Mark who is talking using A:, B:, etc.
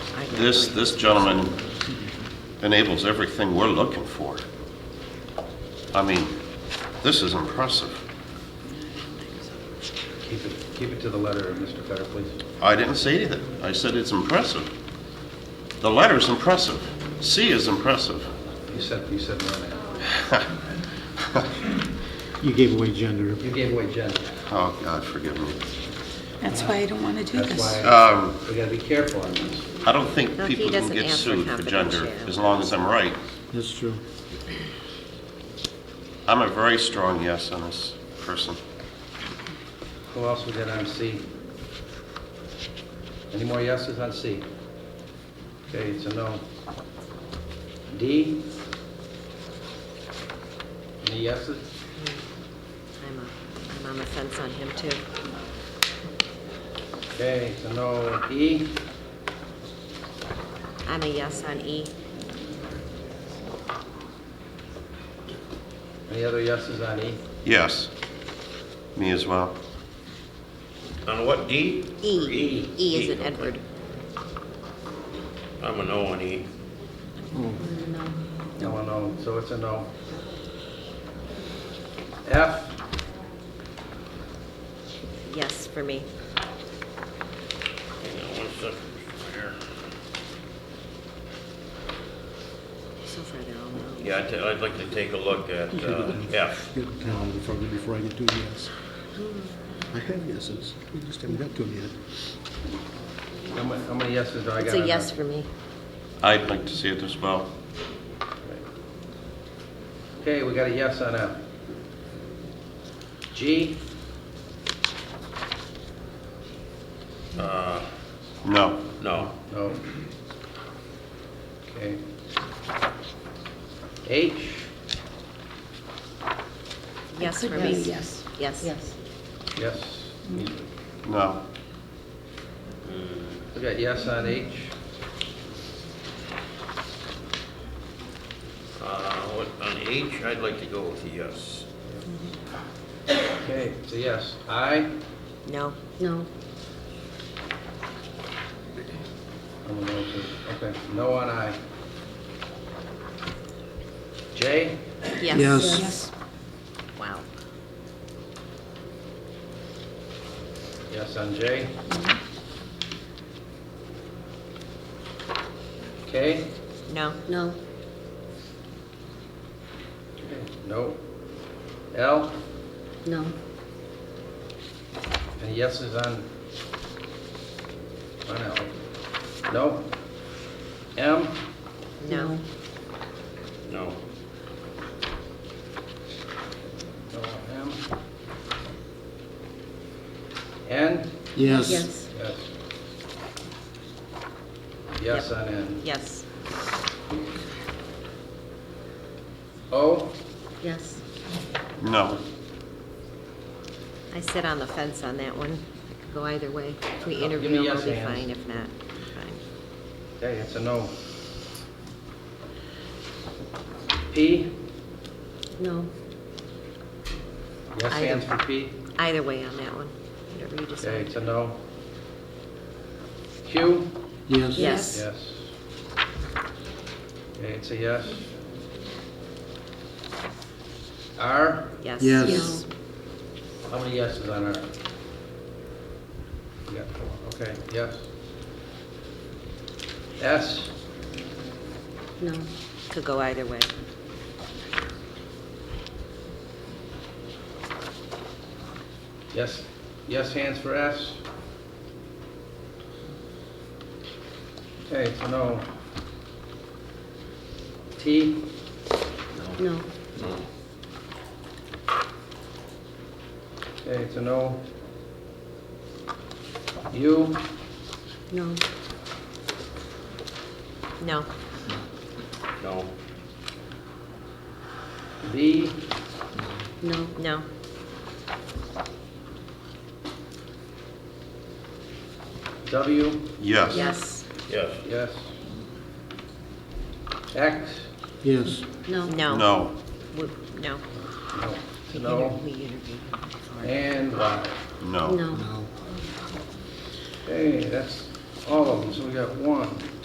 A: this, this gentleman enables everything we're looking for. I mean, this is impressive.
B: Keep it, keep it to the letter, Mr. Cutter, please.
A: I didn't say anything. I said it's impressive. The letter's impressive. C is impressive.
B: You said, you said no now.
C: You gave away gender.
B: You gave away gender.
A: Oh, God, forgive me.
D: That's why I don't want to do
B: That's
D: this.
B: why
A: Um,
B: we gotta be careful on this.
A: I don't think
E: No, he
A: people can
E: doesn't
A: get
E: answer
A: sued for gender,
E: confidentiality.
A: as long as I'm right.
C: That's true.
A: I'm a very strong yes on this person.
B: Who else we got on C? Any more yeses on C? Okay, it's a no. D? Any yeses?
E: I'm a- I'm on the fence on him, too.
B: Okay, it's a no. E?
E: I'm a yes on E.
B: Any other yeses on E?
A: Yes. Me as well.
F: On what, D?
E: E,
F: E.
E: E is
F: E,
E: in Edward.
F: I'm a no on E.
B: No, a no, so it's a no. F?
E: Yes for me.
F: Hang on one second here.
E: So far, they're all no.
F: Yeah, I'd, ta- I'd like to take a look at uh, F.
C: Get the town before, before I get to a yes. I have yeses. We just haven't got to them yet.
B: How many, how many yeses do I
E: It's
B: got on
E: a
B: that?
E: yes for me.
A: I'd like to see it as well.
B: Okay, we got a yes on F. G?
F: Uh,
A: No.
F: No.
B: No. Okay. H?
E: Yes for me. Yes. Yes. Yes.
B: Yes.
A: No.
B: We got yes on H.
F: Uh, what- On H, I'd like to go with a yes.
B: Okay, it's a yes. I?
E: No. No.
B: I'm a no too. Okay, no on I. J?
E: Yes.
C: Yes.
E: Wow.
B: Yes on J. K?
E: No. No.
B: No. L?
E: No.
B: Any yeses on? On L? No. M?
E: No.
F: No.
B: No on M. N?
C: Yes.
B: Yes. Yes on N.
E: Yes.
B: O?
E: Yes.
A: No.
E: I sit on the fence on that one. I could go either way. If we interview
B: me
E: him, I'll
B: yes
E: be
B: hands.
E: fine. If not, fine.
B: Okay, it's a no. P?
E: No.
B: Yes
E: I
B: hands for
E: don't-
B: P?
E: Either way on that one. Whatever you
B: Okay,
E: decide.
B: it's a no. Q?
C: Yes.
E: Yes.
B: Yes. Okay, it's a yes. R?
E: Yes.
C: Yes.
B: How many yeses on R? We got four, okay, yes. S?
E: No. Could go either way.
B: Yes, yes hands for S. Okay, it's a no. T,
E: No.
B: okay, it's a no. U,
E: No. No.
F: No.
B: V,
E: No. No.
B: W,
A: Yes.
E: Yes.
F: Yes.
B: yes. X,
C: Yes.
E: No. No.
A: No.
E: We- No.
B: no, it's a
E: Inter-
B: no.
E: We interviewed him before.
B: And Y.
A: No.
C: No.
B: Okay, that's all of them, so we got one,